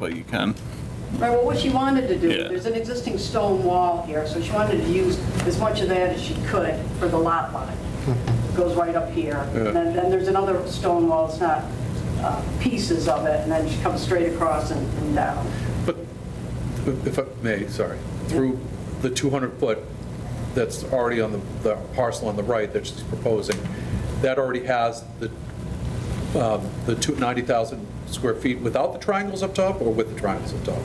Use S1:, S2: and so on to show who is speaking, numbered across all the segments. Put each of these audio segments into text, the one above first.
S1: Well, you can.
S2: Right, well, what she wanted to do,
S1: Yeah.
S2: there's an existing stone wall here, so she wanted to use as much of that as she could for the lot line.
S3: Mm-hmm.
S2: Goes right up here.
S1: Yeah.
S2: And then then there's another stone wall, it's not uh, pieces of it, and then she comes straight across and and down.
S4: But if I may, sorry, through the 200-foot that's already on the- the parcel on the right that she's proposing, that already has the um, the two- 90,000 square feet without the triangles up top or with the triangles up top?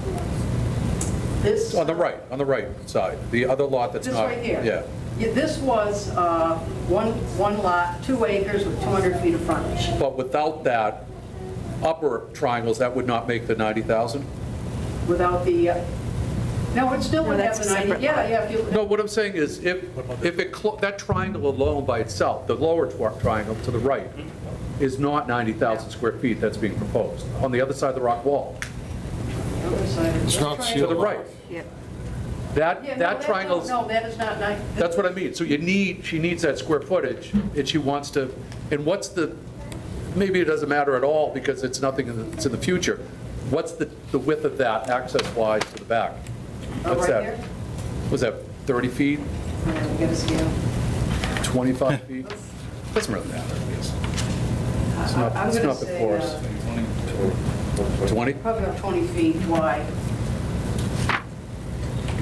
S2: This,
S4: On the right, on the right side, the other lot that's
S2: this
S4: not.
S2: right here.
S4: Yeah.
S2: Yeah, This was uh, one, one lot, two acres with 200 feet of frontage.
S4: But without that upper triangles, that would not make the 90,000?
S2: without the, uh, no, it still
S5: No,
S2: would have
S5: that's a
S2: the 90,
S5: separate
S2: yeah,
S5: lot.
S2: yeah, if you,
S4: No, what I'm saying is, if, if it, clo- that triangle alone by itself, the lower tw- triangle to the right, is not 90,000 square feet that's being proposed, on the other side of the rock wall,
S2: the other side.
S3: It's not
S4: to
S3: sealed.
S4: the right.
S5: Yep.
S2: Yeah, no,
S4: That, that
S2: that's not-
S4: triangle's,
S2: No, that is not 90.
S4: that's what I mean, so you need, she needs that square footage, and she wants to, and what's the, maybe it doesn't matter at all, because it's nothing, in the- it's in the future, what's the, the width of that access-wise to the back?
S2: Oh,
S4: What's
S2: right
S4: that?
S2: there?
S4: Was that 30 feet,
S2: Yeah, we Get a scale.
S4: 25 feet? Doesn't really matter, I guess. It's
S2: I-
S4: not,
S2: I'm
S4: it's
S2: gonna
S4: not
S2: say,
S4: before us.
S2: uh,
S4: 20?
S2: Probably about 20 feet wide.
S3: I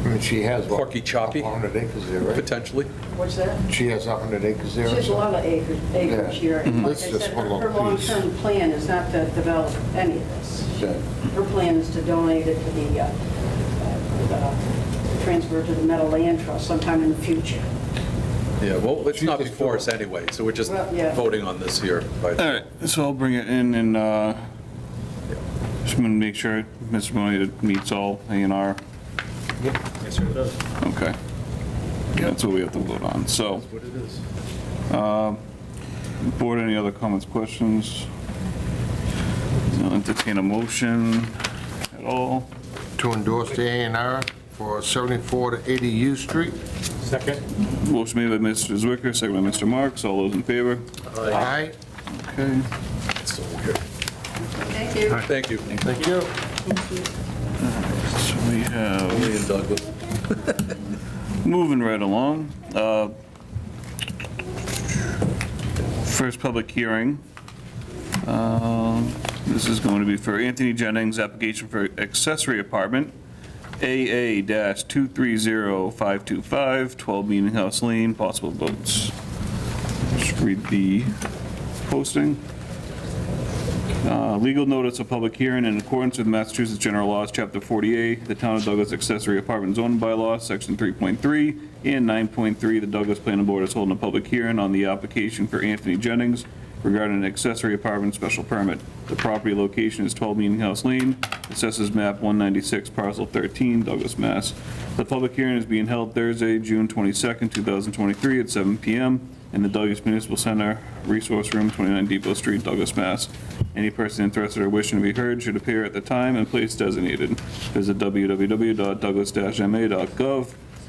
S3: mean, she has. what,
S4: Porky choppy?
S3: up 100 acres there, right?
S4: Potentially.
S2: What's that?
S3: She has 100 acres there.
S2: She
S3: or
S2: has a lot
S3: something?
S2: of acres, acres
S3: Yeah.
S2: here. and Like I
S3: That's just
S2: said,
S3: one
S2: her
S3: little
S2: her
S3: piece.
S2: long-term plan is not to develop any of this.
S3: Okay.
S2: Her plan is to donate it to the, uh, uh, transfer to the Meadow Land Trust sometime in the future.
S4: Yeah, well, it's not
S3: Jesus
S4: before us
S3: Christ.
S4: anyway, so we're just
S2: Well, yeah.
S4: voting on this here. right?
S1: All right, so I'll bring it in and uh, just want to make sure Mr. Mooney meets all A and R.
S6: Yes, sir, it does.
S1: Okay. That's what we have to vote on. So, Um,
S4: What it is.
S1: board, any other comments, questions? I'll Entertain a motion at all?
S3: To endorse the A and R for 74 to 80 U Street.
S6: Second?
S1: Motion made by Mr. Zwicker, second by Mr. Marks. All those in favor?
S3: Aye.
S1: Okay.
S4: It's so weird.
S2: Thank you.
S4: Thank you.
S3: Thank you.
S1: So we have
S4: Lee and Douglas.
S1: Moving right along. uh, First public hearing. Um, This is going to be for Anthony Jennings, application for accessory apartment, AA-230525, 12 Meeting House Lane, possible votes. Just read the posting. Uh, Legal notice of public hearing in accordance with Massachusetts General Laws, Chapter 48, the Town of Douglas Accessory Apartment Zone Bylaw, Section 3.3 and 9.3. The Douglas Planning Board is holding a public hearing on the application for Anthony Jennings regarding an accessory apartment special permit. The property location is 12 Meeting House Lane, assesses map 196, parcel 13, Douglas, Mass. The public hearing is being held Thursday, June 22nd, 2023, at 7 PM in the Douglas Municipal Center, Resource Room, 29 Depot Street, Douglas, Mass. Any person interested or wishing to be heard should appear at the time and place designated. Visit www.douglas-ma.gov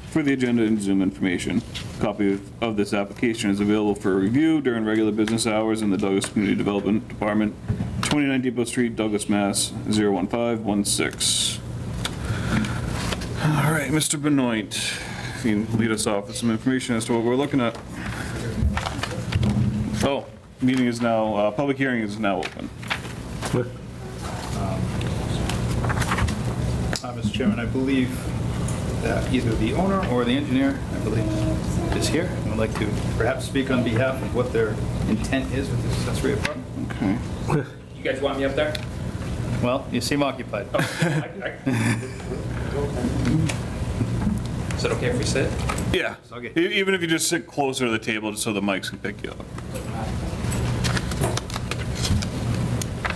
S1: for the agenda and Zoom information. Copy of- of this application is available for review during regular business hours in the Douglas Community Development Department, 29 Depot Street, Douglas, Mass. 01516. All right, Mr. Benoit, if you can lead us off with some information as to what we're looking at. Oh, meeting is now, uh, public hearing is now open.
S6: Uh, Mr. Chairman, I believe that either the owner or the engineer, I believe, is here and would like to perhaps speak on behalf of what their intent is with this accessory apartment.
S1: Okay.
S7: You guys want me up there?
S6: Well, you seem occupied.
S7: I- I- Is it okay if we sit?
S1: Yeah.
S6: Okay.
S1: E- Even if you just sit closer to the table, just so the mics can pick you up.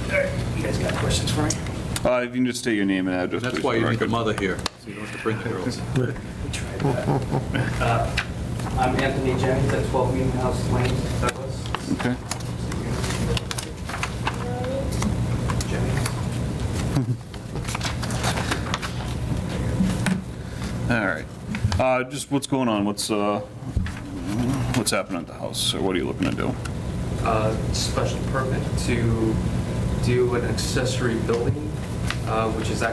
S7: You guys got questions for me?
S1: Uh, If you can just state your name and address.
S4: That's
S1: please,
S4: why
S1: for
S4: you need the
S1: record.
S4: mother here, so you don't have to bring the girls.
S8: I'm Anthony Jennings at 12 Meeting House Lane, Douglas.
S1: Okay.
S8: Jennings.
S1: All right. Uh, Just what's going on? What's, uh, what's happening at the house? Or what are you looking to do?
S8: Uh, Special permit to do an accessory building uh, which is